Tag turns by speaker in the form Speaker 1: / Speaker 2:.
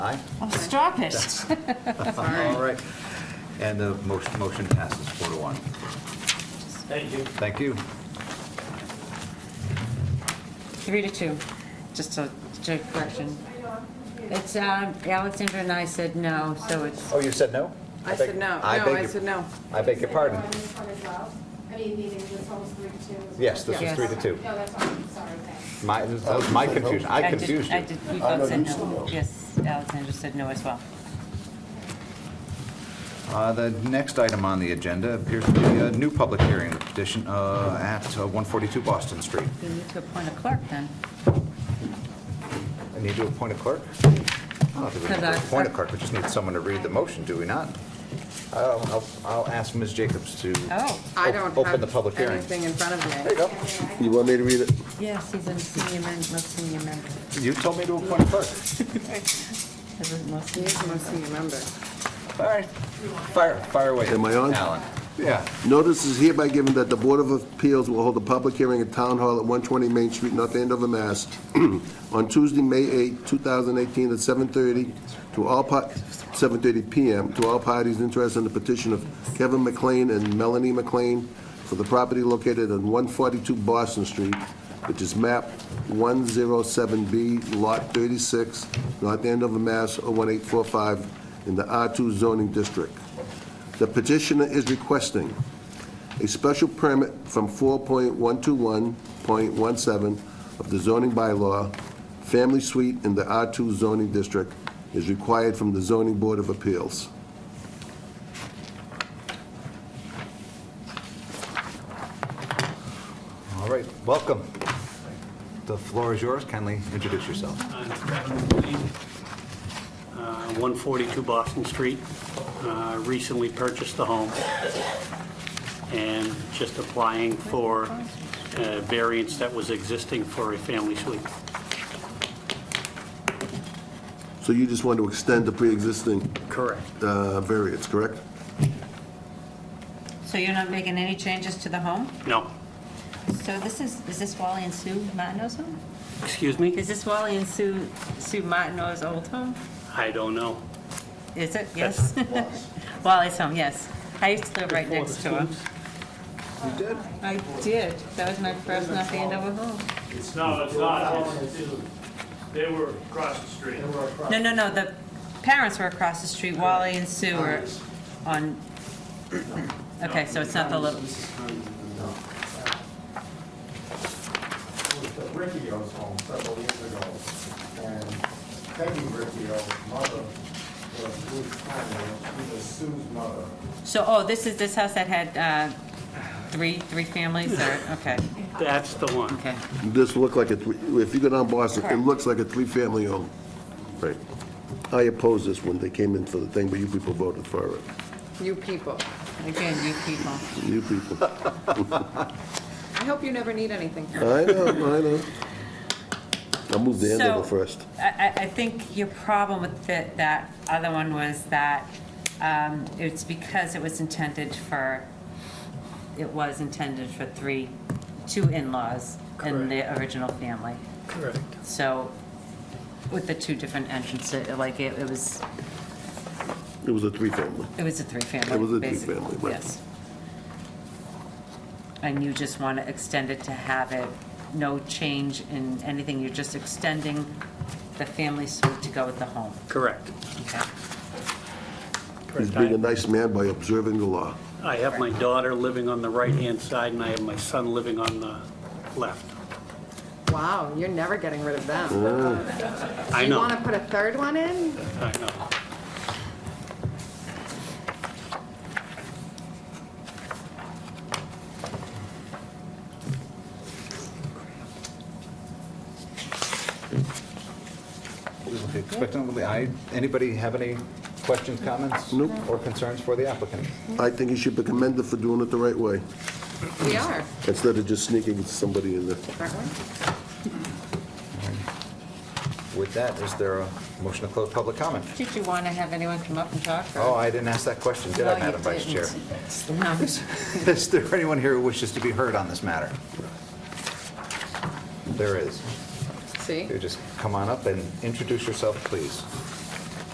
Speaker 1: Aye?
Speaker 2: Oh, stop it.
Speaker 1: All right. And the motion motion passes four to one.
Speaker 3: Thank you.
Speaker 1: Thank you.
Speaker 2: Three to two, just a, to correction. It's, um, Alexandra and I said no, so it's,
Speaker 1: Oh, you said no?
Speaker 4: I said no. No,
Speaker 1: I beg
Speaker 4: I
Speaker 1: your-
Speaker 4: said no.
Speaker 1: I beg your pardon.
Speaker 5: Is it on this one as well? I mean, meaning this one was three to two. as well?
Speaker 1: Yes, this was
Speaker 2: Yes.
Speaker 1: three to two.
Speaker 5: No, that's fine, sorry, thanks.
Speaker 1: My, that was my confusion. I
Speaker 2: did-
Speaker 1: confused
Speaker 2: I
Speaker 1: you.
Speaker 2: did, we
Speaker 6: I
Speaker 2: both
Speaker 6: know
Speaker 2: said
Speaker 6: you said
Speaker 2: no.
Speaker 6: no.
Speaker 2: Yes, Alexandra said no as well.
Speaker 1: Uh, The next item on the agenda appears to be a new public hearing, the petition uh, at uh, 142 Boston Street.
Speaker 2: We need to appoint a clerk then.
Speaker 1: I need to appoint a clerk? I don't think we need
Speaker 2: Could I-
Speaker 1: to appoint a clerk, we just need someone to read the motion, do we not? I'll, I'll- I'll ask Ms. Jacobs to
Speaker 2: Oh.
Speaker 4: I don't
Speaker 1: op- open the public
Speaker 4: have
Speaker 1: hearing.
Speaker 4: anything in front of
Speaker 1: There
Speaker 4: me.
Speaker 1: you go.
Speaker 6: You want me to read it?
Speaker 2: Yes, he's a senior member, senior member.
Speaker 1: You told me to appoint a clerk.
Speaker 2: Is it most senior?
Speaker 4: He's the most senior member.
Speaker 1: All right, fire, fire away.
Speaker 6: Am I on?
Speaker 1: Alan. Yeah,
Speaker 6: Notice is hereby given that the Board of Appeals will hold a public hearing at Town Hall at 120 Main Street, North Andover, Mass, on Tuesday, May 8, 2018, at 7:30 to all, par- 7:30 PM, to all parties interested in the petition of Kevin McLean and Melanie McLean for the property located on 142 Boston Street, which is map 107B, lot 36, North Andover, Mass. 01845, in the R2 zoning district. The petitioner is requesting a special permit from 4.121.17 of the zoning bylaw, family suite in the R2 zoning district is required from the zoning board of appeals.
Speaker 1: all right, welcome. The floor is yours, kindly introduce yourself.
Speaker 3: I'm Kevin Blaine, uh, 142 Boston Street. Uh, Recently purchased the home and just applying for a variance that was existing for a family suite.
Speaker 6: So you just want to extend the pre-existing
Speaker 3: Correct.
Speaker 6: uh, variance, correct?
Speaker 2: So you're not making any changes to the home?
Speaker 3: No,
Speaker 2: So this is, is this Wally and Sue Martineau's home?
Speaker 3: excuse me?
Speaker 2: Is this Wally and Sue, Sue Martineau's old home?
Speaker 3: I don't know.
Speaker 2: Is it? Yes. Wally's home, yes. I used to live right
Speaker 3: Before the
Speaker 2: next to him.
Speaker 3: schools.
Speaker 1: You did?
Speaker 2: I did. That was my first North Andover home.
Speaker 7: No, it's not. It's- it's- They were across the street.
Speaker 2: No, no, no, the parents were across the street, Wally and Sue
Speaker 3: Oh,
Speaker 2: were on, okay, so it's not the little,
Speaker 8: was at Riccio's home several years ago, and Peggy Riccio's mother was Ruth Conley, she was Sue's mother.
Speaker 2: so, oh, this is, this house that had uh, three, three families, or, okay,
Speaker 3: That's the one.
Speaker 2: okay.
Speaker 6: This look like a, three- if you go down Boston, it looks like a three-family home. Right. I opposed this when they came in for the thing, but you people voted for it.
Speaker 4: You people.
Speaker 2: Again, you people.
Speaker 6: You people.
Speaker 4: I hope you never need anything.
Speaker 6: I know, I know. I moved the
Speaker 2: So-
Speaker 6: Andover first.
Speaker 2: I, I- I think your problem with that, that other one was that um, it's because it was intended for, it was intended for three, two in-laws in the original family.
Speaker 3: Correct.
Speaker 2: So with the two different entrances, like it it was,
Speaker 6: It was a three-family.
Speaker 2: it was a three-family.
Speaker 6: It was a
Speaker 2: basically,
Speaker 6: three-family, right.
Speaker 2: Yes. And you just want to extend it to have it, no change in anything, you're just extending the family suite to go with the home.
Speaker 3: Correct.
Speaker 2: Okay.
Speaker 6: He's being a nice man by observing the law.
Speaker 3: I have my daughter living on the right-hand side, and I have my son living on the left.
Speaker 4: Wow, you're never getting rid of them.
Speaker 3: I
Speaker 4: You
Speaker 3: know,
Speaker 4: want to put a third one in?
Speaker 3: I know.
Speaker 1: Expectantly, I, anybody have any questions, comments?
Speaker 6: Nope.
Speaker 1: Or concerns for the applicant?
Speaker 6: I think he should be commended for doing it the right way,
Speaker 4: We are.
Speaker 6: instead of just sneaking somebody in there.
Speaker 4: Aren't we?
Speaker 1: With that, is there a motion to close public comment?
Speaker 2: Did you want to have anyone come up and talk? or-
Speaker 1: Oh, I didn't ask that question, did
Speaker 2: No,
Speaker 1: I,
Speaker 2: you
Speaker 1: Madam Vice Chair?
Speaker 2: didn't. No.
Speaker 1: Is there anyone here who wishes to be heard on this matter? There is.
Speaker 4: See?
Speaker 1: You just come on up and introduce yourself, please.